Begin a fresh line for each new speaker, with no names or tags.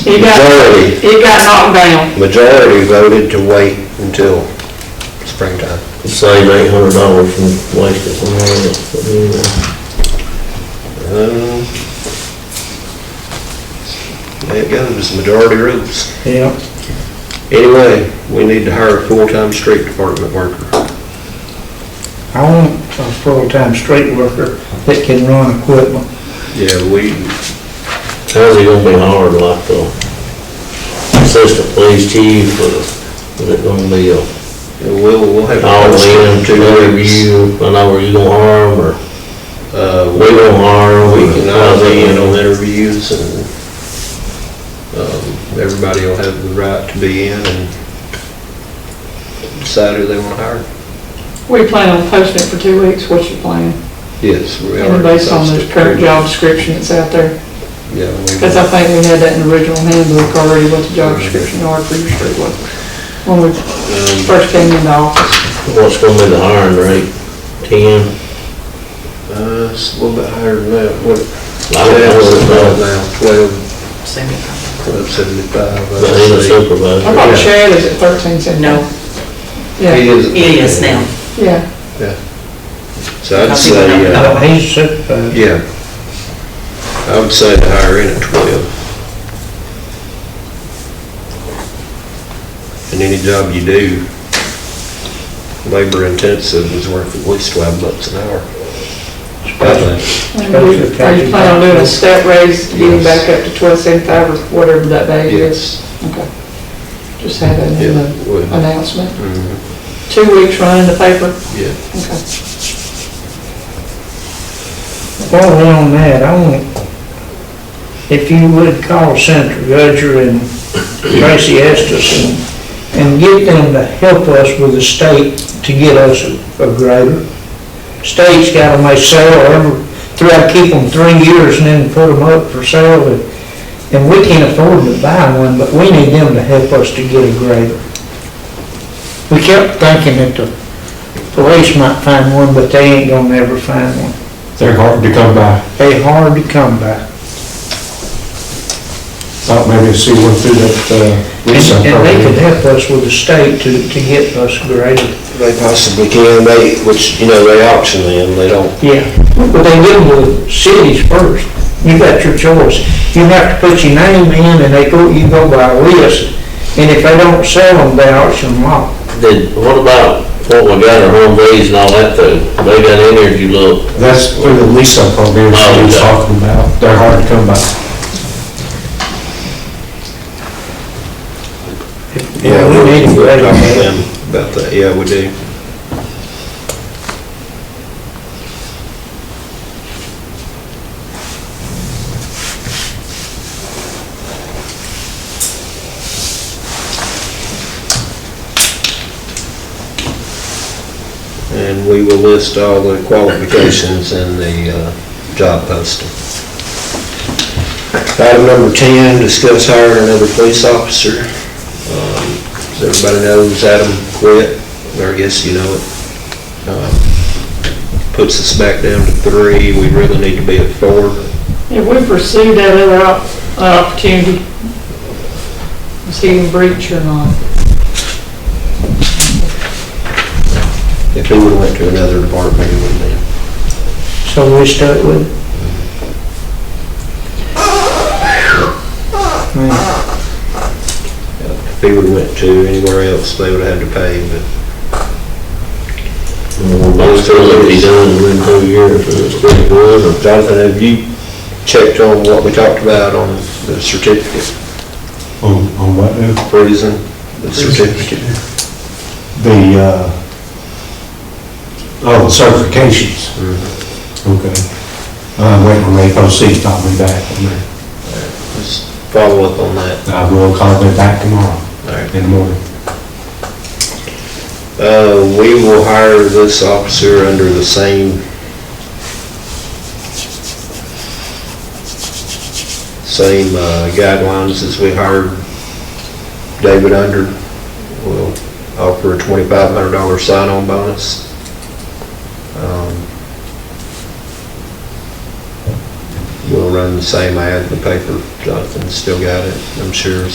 It got,
Majority.
it got knocked down.
Majority voted to wait until springtime.
Save eight hundred dollars from wasted. on all that.
Um, There it goes, majority rules.
Yeah.
Anyway, we need to hire a full-time street department worker.
I want a full-time street worker that can run equipment.
Yeah, we,
How's it gonna be hard like the assistant police chief or is it gonna be a
we'll, we'll have. a
all
post
in to
two weeks.
interview? I know where you gonna harm or
Uh,
we gonna harm?
We can all
how's it
be in
gonna-
on interviews and, um, everybody will have the right to be in and decide who they want to hire.
We plan on posting it for two weeks, what's your plan?
Yes. we
And
already
based on
posted.
this current job description that's out there,
Yeah. we-
because I think we had that in the original handbook already, what the job description are for your street work. When
Um,
we first came into office,
What's gonna be the hiring rate? Ten?
Uh, it's a little bit higher than that, what?
I don't know what it's about.
now, twelve. Twelve seventy-five.
But he's a supervisor.
I thought
Yeah.
Chad is at thirteen seventy.
No,
He
Yeah,
is.
it is now.
yeah,
So I'd
Because people don't
say,
know.
uh,
But he's supervisor.
yeah. I would say the higher end at twelve. And any job you do, labor intensive is worth at least twelve bucks an hour. I think.
And we- are you planning on doing a step raise, getting back up to twelve seventy-five or whatever that value is?
Yes,
Okay. Just have that in
yeah,
the
would.
announcement,
Mhm,
two weeks running the paper,
Yeah.
okay.
While we're on that, I want, if you would call Senator Gudger and Tracy Estes and, and get them to help us with the state to get us a grader. State's got them, they sell every, try to keep them three years and then put them up for sale. and- And we can't afford to buy one, but we need them to help us to get a grader. We kept thinking that the police might find one, but they ain't gonna ever find one.
They're hard to come by.
They hard to come by.
Thought maybe see one through that, uh,
And
lease up
and they could
program.
help us with the state to, to get us graded.
They possibly can, they, which, you know, they auction them, they don't,
Yeah. But they give them to cities first. You got your choice. You have to put your name in and they go, you go by a list. And if they don't sell them, they auction them off.
Did, what about what we got at Humvees and all that though? They got energy look.
That's through the lease up program
Oh,
she was talking about. They're hard to come by.
Yeah, we need to
to
go
grade
talk to
them.
them about that, yeah, we do. And we will list all the qualifications in the uh, job posting. Item number 10, discuss hiring another police officer. As everybody knows, Adam quit, or I guess you know it. Um, Puts us back down to three, we really need to be at four.
If we pursue that other op- uh, opportunity, is he in breach or not?
If he would've went to another department, he would've been.
So we stuck with it. Man,
If he would've went to anywhere else, they would've had to pay, but
But still, it'd be done within two years, and it's pretty good.
Jonathan, have you checked on what we talked about on the certificate,
On, on what, uh,
prison, the certificate?
the, uh, oh, the certifications. Mm-hmm. Okay. I'm waiting on AOC to call me back on that.
Just follow up on that.
I will call them back tomorrow
All right.
in the morning.
Uh, we will hire this officer under the same same uh, guidelines as we hired David under. We'll offer a twenty-five hundred dollar sign-on bonus. Um, We'll run the same ad in the paper, Jonathan's still got it, I'm sure,